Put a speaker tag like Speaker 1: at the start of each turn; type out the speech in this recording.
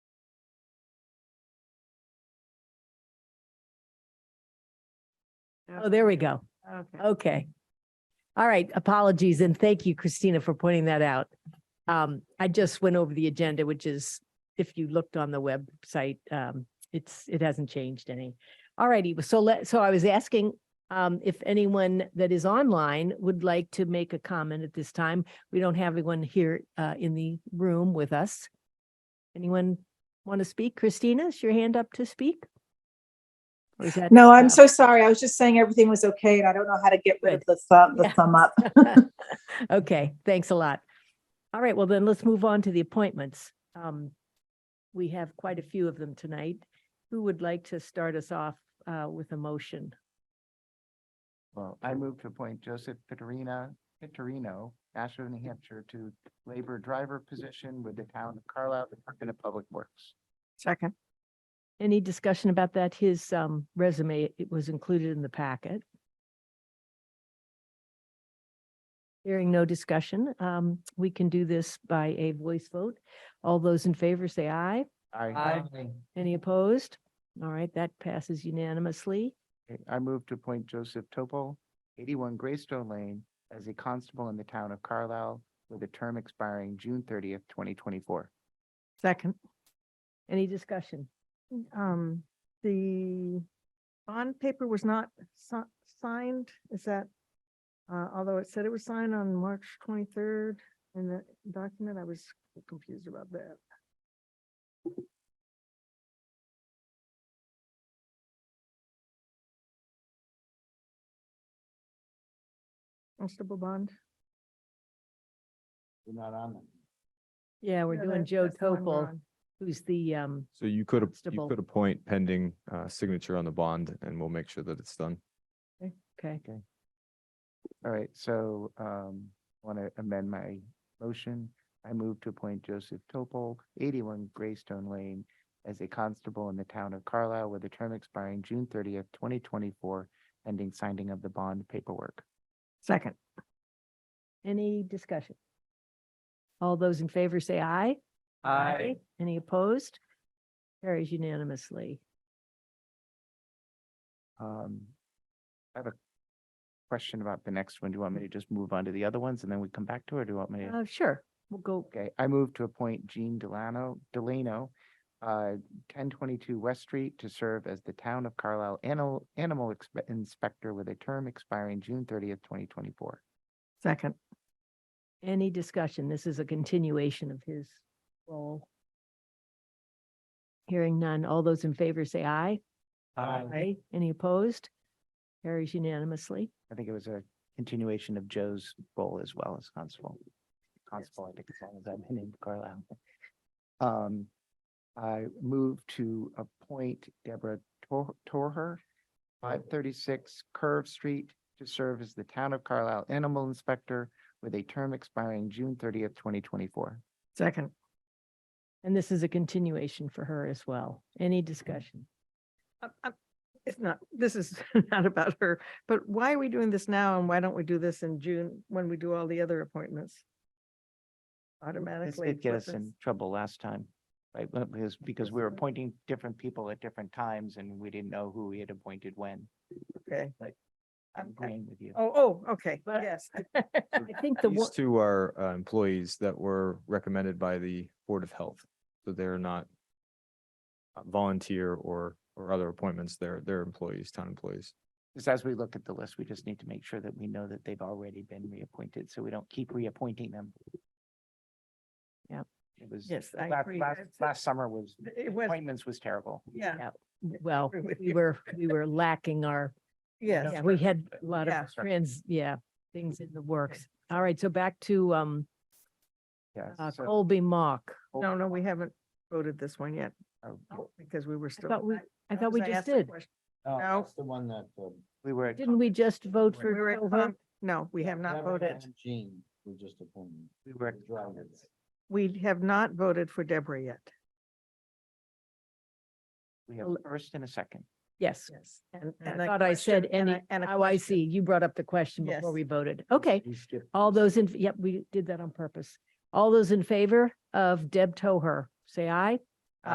Speaker 1: Oh, there we go.
Speaker 2: Okay.
Speaker 1: Okay. All right, apologies, and thank you, Christina, for pointing that out. Um, I just went over the agenda, which is, if you looked on the website, um, it's, it hasn't changed any. All righty, so let, so I was asking, um, if anyone that is online would like to make a comment at this time. We don't have anyone here, uh, in the room with us. Anyone want to speak? Christina, is your hand up to speak? Or is that-
Speaker 3: No,
Speaker 1: uh,
Speaker 3: I'm so sorry. I was just saying everything was okay and I don't know how to get rid of the thumb, the
Speaker 1: Yeah.
Speaker 3: thumb up.
Speaker 1: Okay, thanks a lot. All right, well then, let's move on to the appointments. Um, We have quite a few of them tonight. Who would like to start us off uh, with a motion?
Speaker 4: Well, I move to appoint Joseph Pittarina, Pittarino, Ashford, New Hampshire, to labor driver position with the town of Carlisle, Department of Public Works.
Speaker 2: Second.
Speaker 1: Any discussion about that? His um, resume, it was included in the packet. Hearing no discussion, um, we can do this by a voice vote. All those in favor say aye.
Speaker 4: I,
Speaker 1: Any opposed? All right, that passes unanimously.
Speaker 4: Okay, I move to appoint Joseph Topol, eighty-one Greystone Lane, as a constable in the town of Carlisle with a term expiring June thirtieth, twenty twenty-four.
Speaker 2: Second.
Speaker 1: Any discussion?
Speaker 2: Um, the bond paper was not si- signed, is that? Uh, although it said it was signed on March twenty-third in the document, I was confused about that. Constable bond,
Speaker 4: You're not on them.
Speaker 1: Yeah, we're
Speaker 2: Yeah,
Speaker 1: doing
Speaker 2: that-
Speaker 1: Joe
Speaker 2: that's the one we're
Speaker 1: Topol.
Speaker 2: on.
Speaker 1: who's the, um,
Speaker 5: So you could, ap-
Speaker 1: Constable.
Speaker 5: you could appoint pending uh, signature on the bond and we'll make sure that it's done.
Speaker 1: okay,
Speaker 4: All right, so um, want to amend my motion. I move to appoint Joseph Topol, eighty-one Greystone Lane, as a constable in the town of Carlisle with a term expiring June thirtieth, twenty twenty-four, ending signing of the bond paperwork.
Speaker 2: second,
Speaker 1: any discussion? All those in favor say aye. Any opposed? Carries unanimously.
Speaker 4: Um, I have a question about the next one. Do you want me to just move on to the other ones and then we come back to it? Or do you want me? to-
Speaker 1: Uh, sure, we'll go,
Speaker 4: Okay, I move to appoint Jean Delano, Delano, uh, ten twenty-two West Street to serve as the town of Carlisle Animal, Animal Inspe- Inspector with a term expiring June thirtieth, twenty twenty-four.
Speaker 2: second,
Speaker 1: any discussion? This is a continuation of his role. Hearing none, all those in favor say aye. Any opposed? Carries unanimously.
Speaker 4: I think it was a continuation of Joe's role as well as constable. Constable, I think, as long as I've been in Carlisle. Um, I move to appoint Deborah Tor- Torher, five thirty-six Curve Street to serve as the town of Carlisle Animal Inspector with a term expiring June thirtieth, twenty twenty-four.
Speaker 2: second.
Speaker 1: And this is a continuation for her as well. Any discussion?
Speaker 2: I'm- I'm- It's not, this is not about her, but why are we doing this now and why don't we do this in June when we do all the other appointments?
Speaker 4: This
Speaker 2: Automatically.
Speaker 4: did get
Speaker 2: put
Speaker 4: us
Speaker 2: this-
Speaker 4: in trouble last time, right? Well, Because, because we were appointing different people at different times and we didn't know who we had appointed when.
Speaker 2: Okay.
Speaker 4: like, I'm
Speaker 2: Okay.
Speaker 4: agreeing with you.
Speaker 2: Oh, oh, okay,
Speaker 1: But-
Speaker 2: yes.
Speaker 1: I think the
Speaker 5: These
Speaker 1: one,
Speaker 5: two are uh, employees that were recommended by the Board of Health. So they're not uh, volunteer or, or other appointments. They're, they're employees, town employees.
Speaker 4: Because as we look at the list, we just need to make sure that we know that they've already been reappointed, so we don't keep reappointing them.
Speaker 1: Yep.
Speaker 4: It was,
Speaker 2: Yes, I
Speaker 4: last,
Speaker 2: agree.
Speaker 4: last,
Speaker 2: It's-
Speaker 4: last summer was,
Speaker 2: It was,
Speaker 4: appointments was terrible.
Speaker 2: yeah,
Speaker 1: well,
Speaker 2: agree with
Speaker 1: we
Speaker 2: you.
Speaker 1: were, we were lacking our
Speaker 2: yes.
Speaker 1: Yeah, we had a lot
Speaker 2: Yeah.
Speaker 1: of trans, yeah, things in the works. All right, so back to um
Speaker 4: Yeah.
Speaker 1: uh,
Speaker 4: so-
Speaker 1: Colby Mock.
Speaker 2: No, no, we haven't voted this one yet
Speaker 4: oh, Oh,
Speaker 2: because we were
Speaker 1: I
Speaker 2: still.
Speaker 1: thought we, I thought we
Speaker 2: because
Speaker 1: just
Speaker 2: asked the
Speaker 1: did.
Speaker 2: question.
Speaker 6: No,
Speaker 2: No.
Speaker 6: that's the one that. uh,
Speaker 4: We were, at-
Speaker 1: Didn't we just vote
Speaker 2: We were
Speaker 1: for
Speaker 2: at
Speaker 1: Tova?
Speaker 2: con- No, we have not
Speaker 6: Deborah
Speaker 2: voted.
Speaker 6: and Jean, we just appointed.
Speaker 4: we were,
Speaker 6: the driver.
Speaker 2: We have not voted for Deborah yet.
Speaker 4: we have
Speaker 1: Well-
Speaker 4: a first and a second.
Speaker 1: Yes.
Speaker 2: Yes. And.
Speaker 1: I
Speaker 2: and a
Speaker 1: thought I said
Speaker 2: question- and
Speaker 1: any,
Speaker 2: a- and a
Speaker 1: oh, I
Speaker 2: question.
Speaker 1: see. You brought up the question before
Speaker 2: Yes.
Speaker 1: we voted. Okay,
Speaker 6: You skipped
Speaker 1: all those in, yep, we did that on purpose. All those in favor of Deb Toher, say aye.